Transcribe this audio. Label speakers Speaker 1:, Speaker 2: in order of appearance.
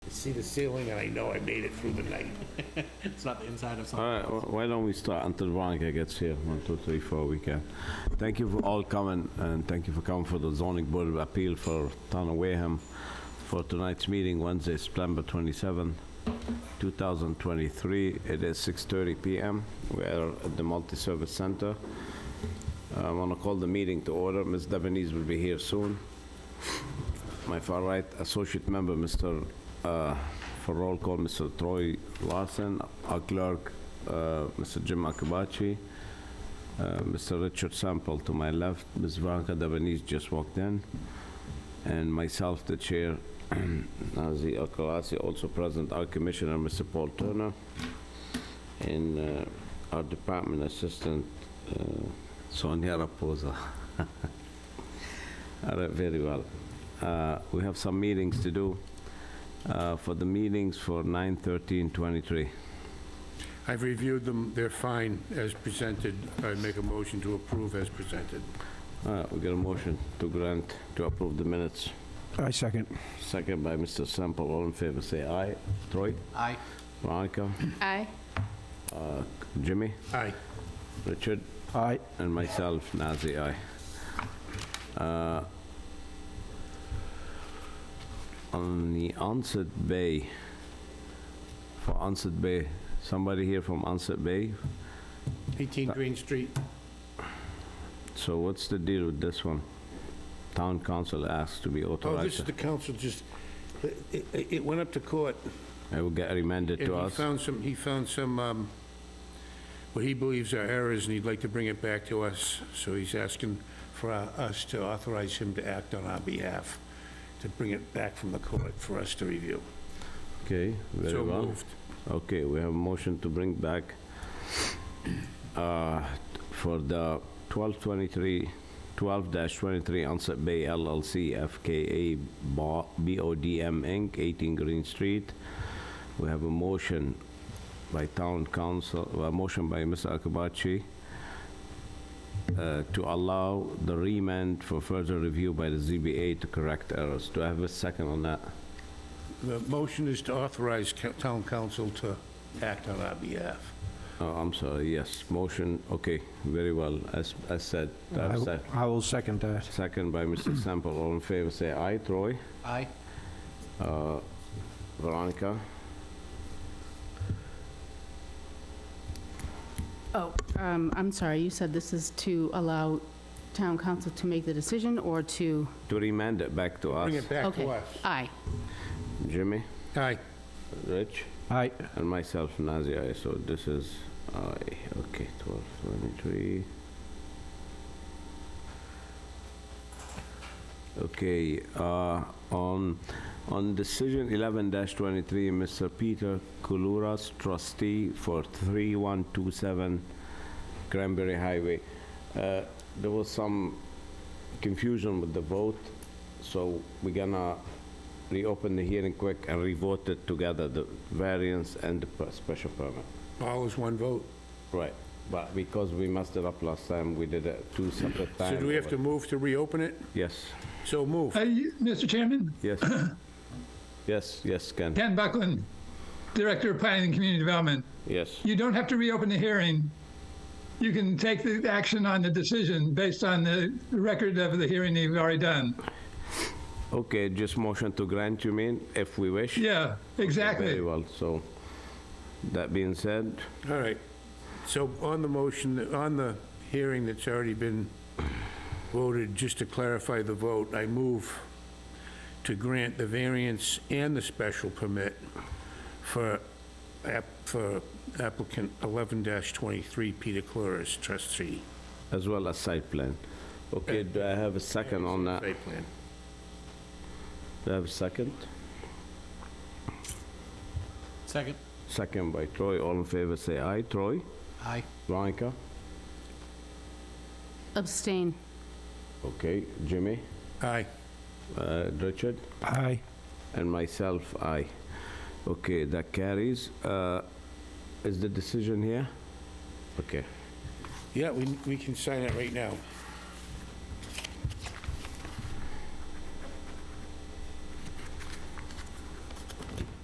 Speaker 1: see the ceiling, and I know I made it through the night.
Speaker 2: It's not the inside of
Speaker 3: All
Speaker 2: something.
Speaker 3: right, wh- why don't we start until Veronica gets here? One, two, three, four, we can. Thank you for all coming, and thank you for coming for the zoning board of appeal for Town of Wareham for tonight's meeting, Wednesday, September 27, 2023. It is 6:30 PM. We're at the multi-service center. I want to call the meeting to order. Ms. Devenese will be here soon. My far right associate member, Mr., uh, for roll call, Mr. Troy Larson, our clerk, uh, Mr. Jim Akabachi, uh, Mr. Richard Sample to my left, Ms. Veronica Devenese just walked in, and myself, the chair, Nazi Akalasi, also present, our commissioner, Mr. Paul Turner, and uh, our department assistant, uh, Sonia Raposa. All right, very well. Uh, We have some meetings to do. Uh, For the meetings for 9/13/23,
Speaker 1: I've reviewed them, they're fine as presented. I make a motion to approve as presented.
Speaker 3: All right, Uh, we got a motion to grant, to approve the minutes.
Speaker 4: I second.
Speaker 3: Second by Mr. Sample, all in favor, say aye. Troy,
Speaker 2: Aye.
Speaker 3: Veronica,
Speaker 5: Aye.
Speaker 3: Jimmy,
Speaker 1: Aye.
Speaker 3: Richard,
Speaker 4: Aye.
Speaker 3: and myself, Nazir, aye. Uh, On the Onset Bay, for Onset Bay, somebody here from Onset Bay?
Speaker 1: 18
Speaker 3: Uh,
Speaker 1: Green Street.
Speaker 3: So what's the deal with this one? Town council asked to be
Speaker 1: Oh, this is
Speaker 3: authorized.
Speaker 1: the council, just, it- it it went up to court,
Speaker 3: It will get remanded
Speaker 1: and
Speaker 3: to
Speaker 1: he
Speaker 3: us.
Speaker 1: found some, he found some, um, what he believes are errors, and he'd like to bring it back to us, so he's asking for uh, us to authorize him to act on our behalf, to bring it back from the court for us to review.
Speaker 3: Okay, very
Speaker 1: So
Speaker 3: well.
Speaker 1: moved.
Speaker 3: Okay, we have a motion to bring back uh, for the 1223, 12-23 Onset Bay LLC FKA Bo- BODM Inc., 18 Green Street. We have a motion by town council, a motion by Mr. Akabachi uh, to allow the remand for further review by the ZBA to correct errors. Do I have a second on that?
Speaker 1: The motion is to authorize ca- town council to act on our behalf.
Speaker 3: Oh, I'm sorry, yes, motion, okay, very well, as, as said,
Speaker 4: I
Speaker 3: I've
Speaker 4: w-
Speaker 3: said.
Speaker 4: I will second that.
Speaker 3: Second by Mr. Sample, all in favor, say aye, Troy,
Speaker 2: Aye.
Speaker 3: Uh, Veronica,
Speaker 5: Oh, um, I'm sorry, you said this is to allow town council to make the decision or to?
Speaker 3: to remand it back to us.
Speaker 1: Bring it back
Speaker 5: Okay.
Speaker 1: to us.
Speaker 5: Aye.
Speaker 3: Jimmy,
Speaker 1: Aye.
Speaker 3: Rich,
Speaker 4: Aye.
Speaker 3: and myself, Nazir, aye, so this is aye, okay, 12, 23. Okay, uh, on, on decision 11-23, Mr. Peter Koulouras, trustee for 3127 Cranberry Highway. Uh, There was some confusion with the vote, so we're gonna reopen the hearing quick and revote it together, the variance and the per- special permit.
Speaker 1: All is one vote.
Speaker 3: Right, but because we messed it up last time, we did it two separate times.
Speaker 1: So do we have to move to reopen it?
Speaker 3: Yes,
Speaker 1: So move.
Speaker 6: Uh, you- Mr. Chairman,
Speaker 3: yes. Yes, yes, Ken,
Speaker 6: Dan Buckland, Director of Planning and Community Development.
Speaker 3: yes.
Speaker 6: You don't have to reopen the hearing. You can take the action on the decision based on the record of the hearing that you've already done.
Speaker 3: Okay, just motion to grant, you mean, if we wish?
Speaker 6: Yeah, exactly.
Speaker 3: Very well, so, that being said,
Speaker 1: All right. So on the motion, on the hearing that's already been voted, just to clarify the vote, I move to grant the variance and the special permit for app- for applicant 11-23 Peter Cloris, trustee.
Speaker 3: as well as site plan. Okay, do I have a second on that?
Speaker 1: Site plan.
Speaker 3: Do I have a second?
Speaker 2: Second.
Speaker 3: Second by Troy, all in favor, say aye. Troy?
Speaker 2: Aye.
Speaker 3: Veronica?
Speaker 5: Abstain.
Speaker 3: Okay, Jimmy?
Speaker 1: Aye.
Speaker 3: Uh, Richard?
Speaker 4: Aye.
Speaker 3: And myself, aye. Okay, that carries. Uh, Is the decision here? Okay.
Speaker 1: Yeah, we we can sign it right now.